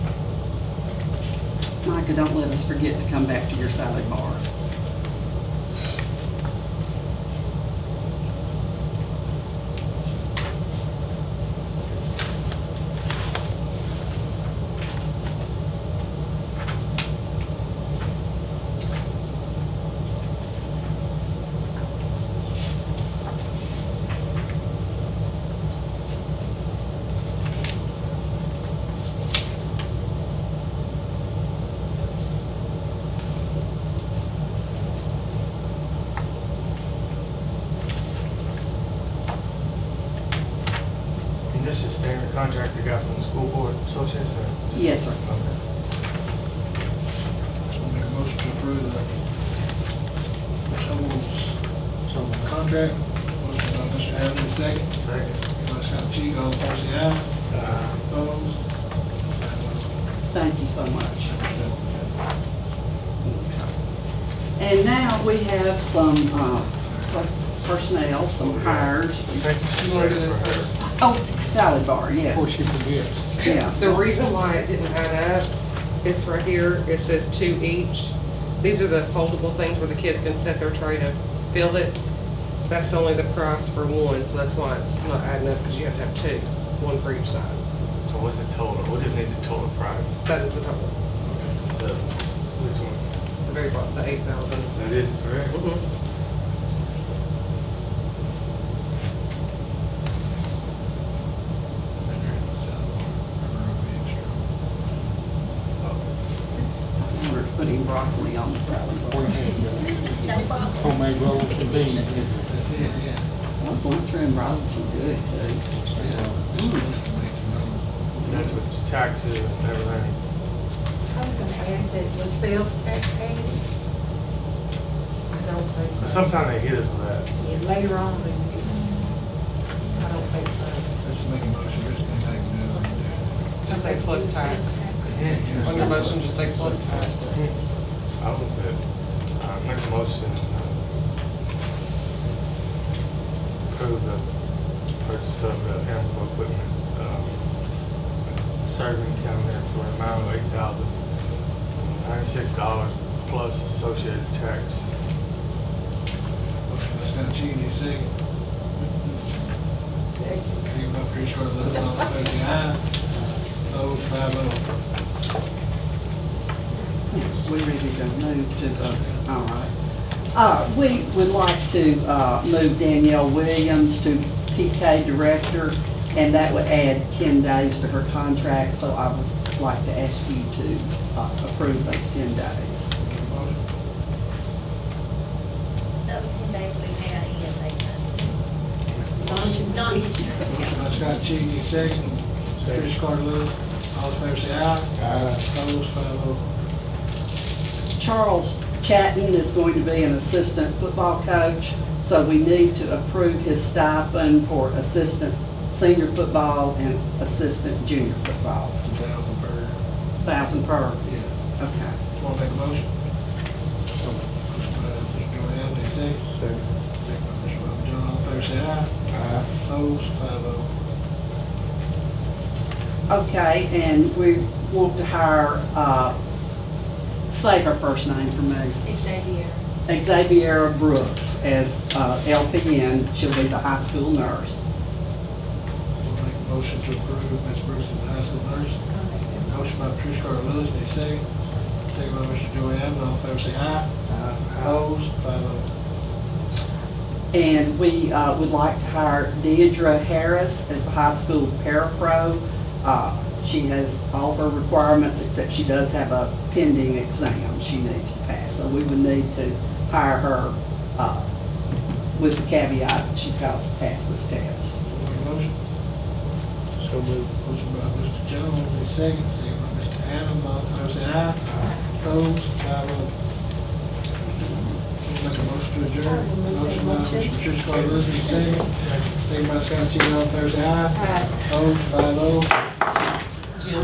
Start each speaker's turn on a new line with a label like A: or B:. A: Micah, don't let us forget to come back to your salad bar.
B: And this is standard contract you got from the school board association? or-
A: Yes, sir.
B: Okay.
C: So make a motion to approve the Summerville's contract. Motion by Mr. Hadley, second.
B: Second.
C: By Scott Cheek, all in favor, say aye.
B: Uh,
C: Opposed?
A: Thank you so much. And now we have some uh, per- personnel, some hires.
B: Thank you.
C: You wanna do this first?
A: Oh, salad bar,
D: Before
A: yes.
D: she forgets.
A: Yeah.
E: The reason why it didn't add up is right here, it says two each. These are the foldable things where the kids can set their tray to fill it. That's only the price for one, so that's why it's not adding up, because you have to have two, one for each side.
B: So what's the total? What is the total price?
E: That is the total,
B: The- Which one?
E: the very bottom, the eight thousand.
B: That is correct.
A: I wonder if putting broccoli on the salad bar.
F: No problem.
D: Homemade rolls and beans.
C: That's it, yeah.
A: Those lunchroom rolls are good too. Mm.
B: And That's with taxes and everything.
G: I was gonna ask that, was sales tax added? I don't think so.
B: Sometimes they hit us with that.
G: Yeah, Later on, they did. I don't think so.
C: Let's make a motion, Rich can take it.
E: Just say plus tax. On your motion, just say plus tax.
B: I would say, uh, make a motion. uh, Approve the purchase of the animal equipment, um, serving calendar for an amount of eight thousand ninety-six dollars plus associated tax.
C: Motion by Scott Cheek, any second. Second by Chris Carter, all in favor, say aye. Opposed, five oh.
A: We ready to move to the, all right. Uh, we would like to, uh, move Danielle Williams to PK Director, and that would add ten days to her contract, so I would like to ask you to, uh, approve those ten days.
F: Those ten days we E pay out ESA funds.
C: Motion by
F: Non-insurance.
C: Scott Cheek, any second. Chris Carter, all in favor, say aye. Opposed, five oh.
A: Charles Chatton is going to be an assistant football coach, so we need to approve his stipend for assistant senior football and assistant junior football,
C: Two thousand per.
A: thousand per.
C: Yeah.
A: Okay.
C: Just wanna make a motion. Motion by Mr. Joe Allen, any second. Second. Second by Mr. Robert John, all in favor, say aye. Aye. Opposed, five oh.
A: Okay, and we want to hire, uh, say her first name for me,
F: Xavier.
A: Xaviera Brooks as uh, LPN. She'll be the high school nurse.
C: We'll make a motion to approve Ms. Brooks as the high school nurse. Motion by Patricia Carter Lewis, any second. Second by Mr. Joey Allen, all in favor, say aye. Opposed, five oh.
A: And we uh, would like to hire Deidre Harris as a high school parapro. Uh, She has all her requirements, except she does have a pending exam she needs to pass. So we would need to hire her uh, with the caveat that she's got to pass this test.
C: We'll Make a motion. So moved. Motion by Mr. Jones, any second. Second by Mr. Allen, all in favor, say aye. Opposed, five oh. We'll Make a motion to adjourn. Motion by Mr. Patricia Carter Lewis, any second. Second by Scott Cheek, all in favor, say aye.
G: Aye.
C: Opposed, five oh.